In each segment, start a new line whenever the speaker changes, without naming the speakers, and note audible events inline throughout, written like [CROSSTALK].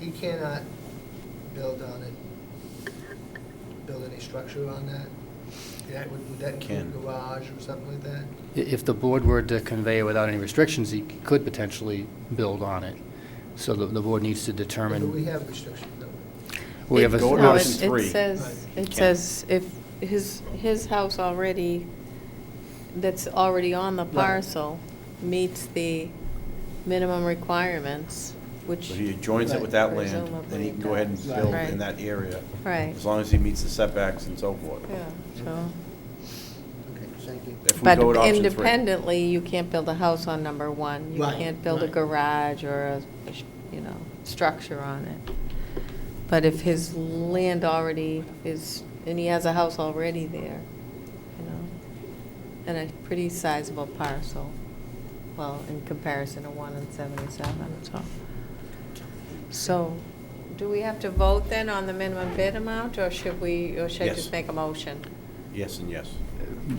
You Um, cannot build on it, build any structure on that? That would, would that
Can.
include garage or something like that?
I- If the board were to convey it without any restrictions, he could potentially build on it. So the, the board needs to
Or do we
determine.
have restrictions, don't we?
We have a-
It- Go to
No,
option
it-
three.
It says,
Right.
it says if his, his house already, that's already on the
Right.
parcel, meets the minimum requirements, which.
So he joins it with that land, then he can go ahead and build
Right.
in that area.
Right.
As long as he meets the setbacks and so forth.
Yeah, so.
Okay, thank you.
If we
But
go to option three.
independently, you can't build a house on number one. You
Right,
can't build a
right.
garage or a, a sh- you know, structure on it. But if his land already is, and he has a house already there, you know, and a pretty sizable parcel, well, in comparison to one and seventy-seven, so. So, do we have to vote then on the minimum bid amount, or should we, or should I
Yes.
just make a motion?
Yes and yes.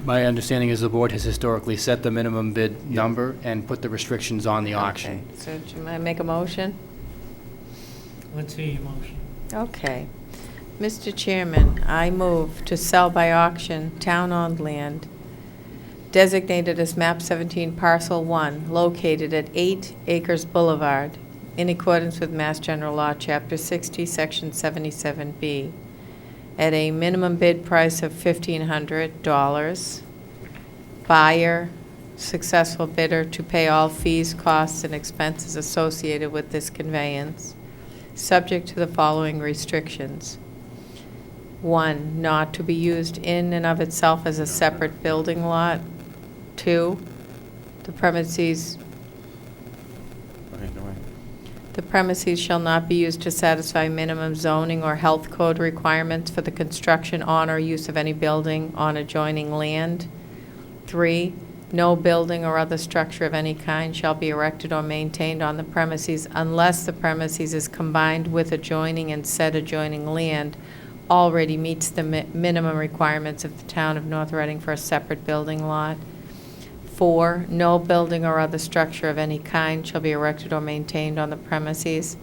My understanding is the board has historically set the minimum bid number and put the restrictions on the auction.
Okay, So should I make a motion?
Let's hear your motion.
Okay. Mr. Chairman, I move to sell by auction town-owned land designated as MAP 17 Parcel 1, located at 8 Acres Boulevard, in accordance with Mass General Law, Chapter 60, Section 77B, at a minimum bid price of $1,500. Buyer, successful bidder to pay all fees, costs, and expenses associated with this conveyance, subject to the following restrictions. One, not to be used in and of itself as a separate building lot. Two, the premises,
Okay, go ahead.
the premises shall not be used to satisfy minimum zoning or health code requirements for the construction on or use of any building on adjoining land. Three, no building or other structure of any kind shall be erected or maintained on the premises unless the premises is combined with adjoining and said adjoining land already meets the mi- minimum requirements of the town of North Reading for a separate building lot. Four, no building or other structure of any kind shall be erected or maintained on the premises.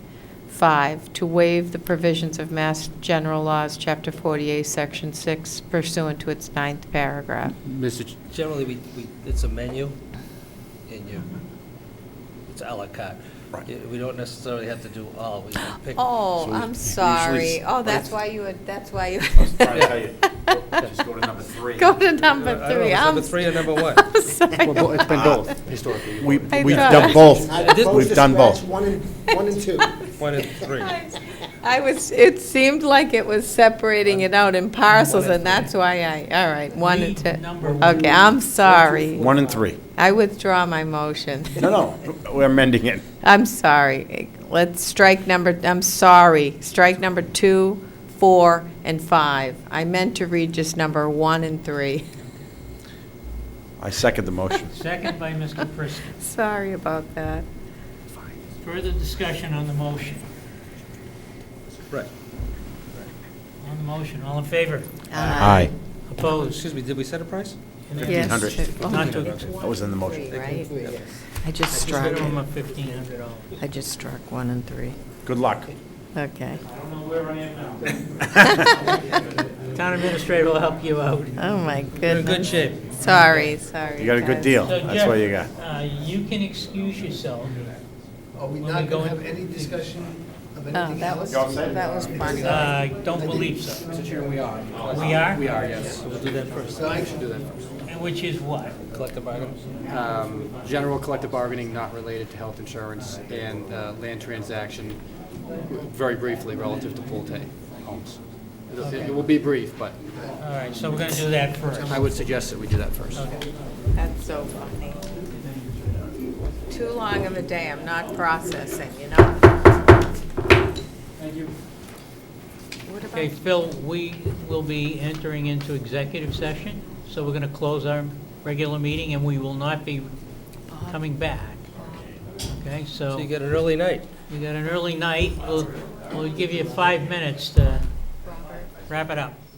Five, to waive the provisions of Mass General Laws, Chapter 48, Section 6 pursuant to its ninth paragraph.
Mr. Ch-
Generally, we, we, it's a menu, and you, it's à la carte.
Right.
Yeah, We don't necessarily have to do all, we can pick.
Oh,
So
I'm
usually-
sorry. Oh, that's why you, would. that's why
[LAUGHS]
you.
I was trying to tell you,
[LAUGHS]
just go to number three. Uh,
Go to number
I don't know,
three.
it's
I'm-
number three or number
[LAUGHS]
one?
I'm sorry.
Well, bo- it's been both
[LAUGHS]
historically.
We,
I
we've
thought-
done both.
I
I'd propose
We've
to
done both.
scratch One and, one and two.
One and three.
I was, it seemed like it was separating it out in parcels, and that's why I, all right, one and
Read
two.
number one.
Okay, I'm sorry.
One and three.
I withdraw my motion.
No, no, we're amending it.
[LAUGHS] I'm sorry. Let's strike number, I'm sorry, strike number two, four, and five. I meant to read just number one and three. [LAUGHS]
I second the motion.
Second by Mr. Prisco.
Sorry about that.
Further discussion on the motion.
Right.
On the motion, all in favor?
Uh,
Aye.
Opposed?
Oh, Excuse me, did we set a price?
Yes.
1,500.
Not to,
That was in the motion.
Three, right?
Three, yes.
I just
just
struck,
minimum of fifteen hundred dollars.
I just struck one and three.
Good luck.
Okay.
I don't know where I am
[LAUGHS]
now. Town administrator will help you out.
Oh, my
You're in good
goodness.
shape.
Sorry, sorry.
You got a good
guys.
deal.
So,
That's what you
Jeff,
got.
uh, You can excuse yourself.
Are we
When we
not
go
going to have
in-
any discussion of
Oh,
anything
that was,
else?
that was funny.
Uh, Don't believe so.
we are.
We are?
We are, yes. We'll do that first.
So I should do that.
And Which is what?
Collective items?
Um, General collective bargaining not related to health insurance and uh, land transaction, very briefly relative to Pulte Homes. It'll- It will be brief, but
All right, so we're going to do that first.
I would suggest that we do that first.
That's so funny. Too long of a day, I'm not processing, you know? Thank you. What
Okay,
about,
Phil, we will be entering into executive session, so we're going to close our regular meeting, and we will not be coming back. Okay, so
So you get an early night.
you got an early night. We'll, we'll give you five minutes to wrap it up.